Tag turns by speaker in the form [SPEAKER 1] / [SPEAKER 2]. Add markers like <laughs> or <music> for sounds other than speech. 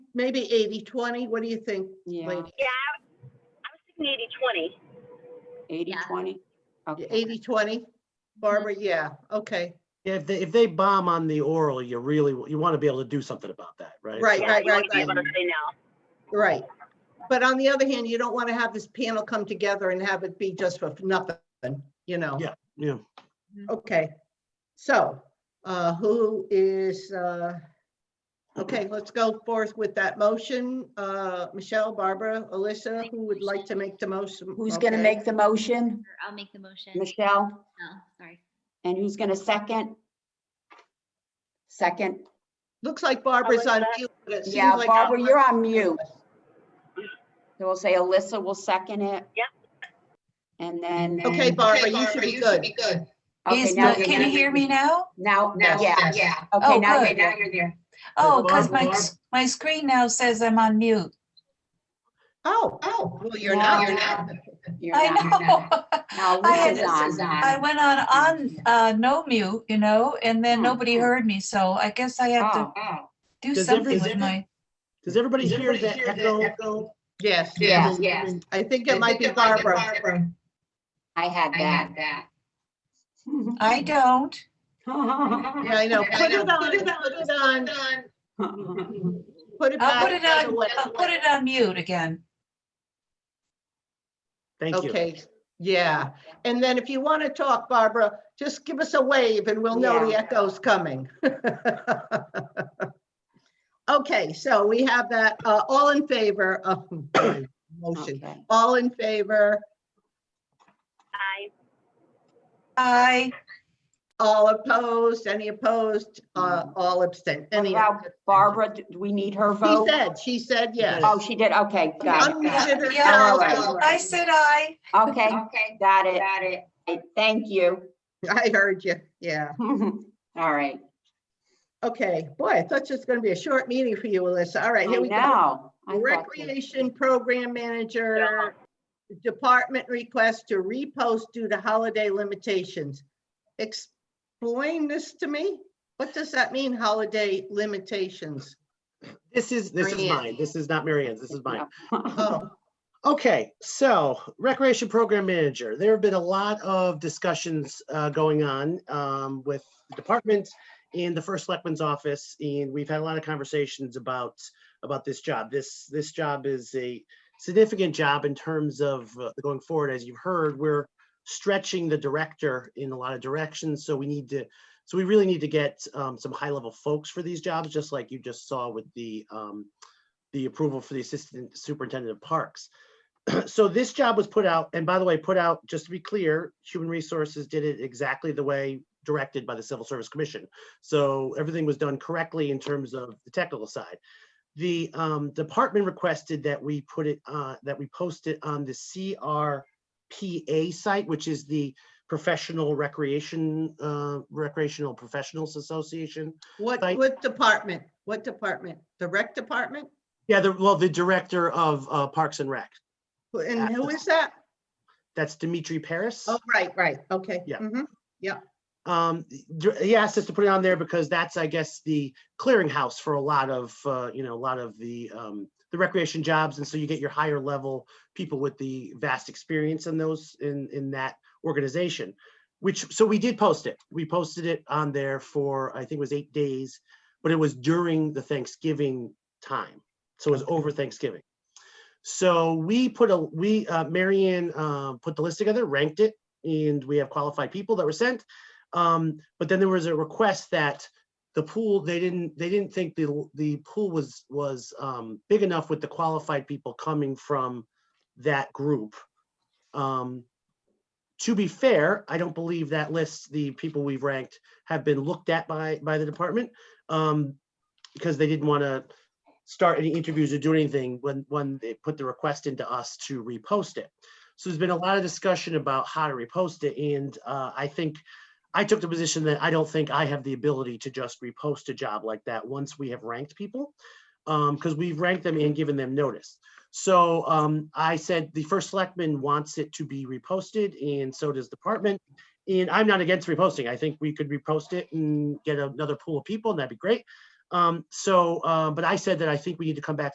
[SPEAKER 1] maybe 80, 20? What do you think?
[SPEAKER 2] Yeah,
[SPEAKER 1] lady?
[SPEAKER 3] Yeah, I was- I was thinking eighty twenty.
[SPEAKER 2] eighty,
[SPEAKER 3] Yeah.
[SPEAKER 2] twenty? Okay,
[SPEAKER 1] 80, 20? Barbara, yeah, okay.
[SPEAKER 4] Yeah, if they, if they bomb on the oral, you really, you want to be able to do something about that, right?
[SPEAKER 1] Right,
[SPEAKER 4] So-
[SPEAKER 3] Yeah,
[SPEAKER 1] right,
[SPEAKER 3] you want
[SPEAKER 1] right,
[SPEAKER 3] to be able
[SPEAKER 1] right,
[SPEAKER 3] to say no.
[SPEAKER 1] right. But on the other hand, you don't want to have this panel come together and have it be just for nothing, you know?
[SPEAKER 4] Yeah. Yeah,
[SPEAKER 1] Okay, so, uh, who is, uh, okay, let's go forth with that motion. Uh, Michelle, Barbara, Alyssa, who would like to make the most?
[SPEAKER 2] who's gonna make the motion?
[SPEAKER 5] Or I'll make the motion.
[SPEAKER 2] Michelle?
[SPEAKER 5] Oh, sorry.
[SPEAKER 2] And who's gonna second? Second?
[SPEAKER 1] Looks like Barbara's on
[SPEAKER 3] Alyssa?
[SPEAKER 1] mute. but it seems
[SPEAKER 2] Yeah,
[SPEAKER 1] like-
[SPEAKER 2] Barbara, you're on mute. So we'll say Alyssa will second it.
[SPEAKER 3] Yep.
[SPEAKER 2] And then.
[SPEAKER 1] Okay, Barbara, you should be good.
[SPEAKER 2] Okay,
[SPEAKER 6] Is
[SPEAKER 2] now
[SPEAKER 6] the,
[SPEAKER 2] you're
[SPEAKER 6] can you
[SPEAKER 2] good.
[SPEAKER 6] hear me now?
[SPEAKER 2] Now,
[SPEAKER 6] Now,
[SPEAKER 2] yeah,
[SPEAKER 6] Yeah.
[SPEAKER 2] okay,
[SPEAKER 6] Oh,
[SPEAKER 2] now you're
[SPEAKER 6] good.
[SPEAKER 2] good.
[SPEAKER 6] there. Oh, because my,
[SPEAKER 4] Barb-
[SPEAKER 6] s- my screen now says I'm on mute.
[SPEAKER 1] Oh,
[SPEAKER 7] Oh,
[SPEAKER 1] well, you're
[SPEAKER 2] No,
[SPEAKER 1] not.
[SPEAKER 2] you're
[SPEAKER 7] not.
[SPEAKER 2] You're
[SPEAKER 6] I
[SPEAKER 2] not.
[SPEAKER 6] know.
[SPEAKER 2] Now
[SPEAKER 6] I had
[SPEAKER 2] Alyssa's
[SPEAKER 6] this
[SPEAKER 2] on.
[SPEAKER 6] <laughs> I went on, on, uh, no mute, you know, and then
[SPEAKER 2] Hmm.
[SPEAKER 6] nobody heard me, so I guess I have to
[SPEAKER 2] Oh,
[SPEAKER 6] do
[SPEAKER 4] Does ev-
[SPEAKER 6] something
[SPEAKER 4] is
[SPEAKER 6] with
[SPEAKER 4] every-
[SPEAKER 6] my,
[SPEAKER 4] Does everybody hear that echo?
[SPEAKER 1] Yes,
[SPEAKER 7] Yeah,
[SPEAKER 2] Yes,
[SPEAKER 7] yeah.
[SPEAKER 1] I think it might be Barbara.
[SPEAKER 2] I had
[SPEAKER 7] I
[SPEAKER 2] that.
[SPEAKER 7] had that.
[SPEAKER 6] I don't.
[SPEAKER 1] Yeah, I know. Put it on, put it on,
[SPEAKER 2] <laughs>
[SPEAKER 1] put it
[SPEAKER 6] I'll put
[SPEAKER 1] back.
[SPEAKER 6] it
[SPEAKER 1] the other
[SPEAKER 6] on,
[SPEAKER 1] way.
[SPEAKER 6] I'll put it on mute again.
[SPEAKER 4] Thank you.
[SPEAKER 1] Okay, yeah. And then if you want to talk, Barbara, just give us a wave and we'll know the
[SPEAKER 2] Yeah.
[SPEAKER 1] echo's coming. <laughs> Okay, so we have that, uh, all in favor of motion,
[SPEAKER 2] Okay.
[SPEAKER 1] all in favor,
[SPEAKER 3] I,
[SPEAKER 4] <laughs>
[SPEAKER 6] I,
[SPEAKER 1] all opposed, any opposed, uh, all abstent, any.
[SPEAKER 2] Now, Barbara, do we need her
[SPEAKER 1] She
[SPEAKER 2] vote?
[SPEAKER 1] said, she said yes.
[SPEAKER 2] Oh, she did, okay, got it, got it.
[SPEAKER 1] Unmuted
[SPEAKER 6] yeah,
[SPEAKER 1] herself.
[SPEAKER 6] I said I.
[SPEAKER 2] Okay,
[SPEAKER 7] Okay,
[SPEAKER 2] got it.
[SPEAKER 7] got it.
[SPEAKER 2] Okay, Thank you. <laughs>
[SPEAKER 1] <laughs> I heard you, yeah.
[SPEAKER 2] All right,
[SPEAKER 1] Okay, boy, I thought this was gonna be a short meeting for you, Alyssa. All
[SPEAKER 2] I
[SPEAKER 1] right, here we go.
[SPEAKER 2] know. I thought so.
[SPEAKER 1] Recreation Program Manager, department request to repost due to holiday limitations. Explain this to me. What does that mean, holiday limitations?
[SPEAKER 4] This is, this is
[SPEAKER 1] Marianne.
[SPEAKER 4] mine. This is not Mary Ann's. This is mine.
[SPEAKER 1] Oh,
[SPEAKER 4] Okay, so Recreation Program Manager, there have been a lot of discussions uh, going on um, with the department and the first selectman's office, and we've had a lot of conversations about, about this job. This, this job is a significant job in terms of uh, going forward. As you've heard, we're stretching the director in a lot of directions, so we need to, so we really need to get um, some high-level folks for these jobs, just like you just saw with the, um, the approval for the Assistant Superintendent of Parks so this job was put out, and by the way, put out, just to be clear, Human Resources did it exactly the way directed by the Civil Service Commission. So everything was done correctly in terms of the technical side. The um, department requested that we put it, uh, that we post it on the CRPA site, which is the Professional Recreation, uh, Recreational Professionals Association.
[SPEAKER 1] What,
[SPEAKER 4] Right.
[SPEAKER 1] what department? What department? The rec department?
[SPEAKER 4] Yeah, the, well, the director of uh, Parks and Rec.
[SPEAKER 1] Who- And who is that?
[SPEAKER 4] That's Dimitri Paris.
[SPEAKER 1] Oh, right, right, okay.
[SPEAKER 4] Yeah.
[SPEAKER 1] mhm.
[SPEAKER 4] Um, dr- he asked us to put it on there because that's, I guess, the clearinghouse for a lot of, uh, you know, a lot of the, um, the recreation jobs. And so you get your higher level people with the vast experience in those, in, in that organization. Which, so we did post it. We posted it on there for, I think it was eight days, but it was during the Thanksgiving time. So it was over Thanksgiving. So we put a, we, uh, Marianne, uh, put the list together, ranked it, and we have qualified people that were sent. Um, but then there was a request that the pool, they didn't, they didn't think the, the pool was, was, um, big enough with the qualified people coming from that group. Um, to be fair, I don't believe that list, the people we've ranked have been looked at by, by the department. Um, because they didn't want to start any interviews or do anything when, when they put the request into us to repost it. So there's been a lot of discussion about how to repost it and, uh, I think I took the position that I don't think I have the ability to just repost a job like that once we have ranked people. Um, because we've ranked them and given them notice. So, um, I said the first selectman wants it to be reposted and so does department. And I'm not against reposting. I think we could repost it and get another pool of people and that'd be great. Um, so, uh, but I said that I think we need to come back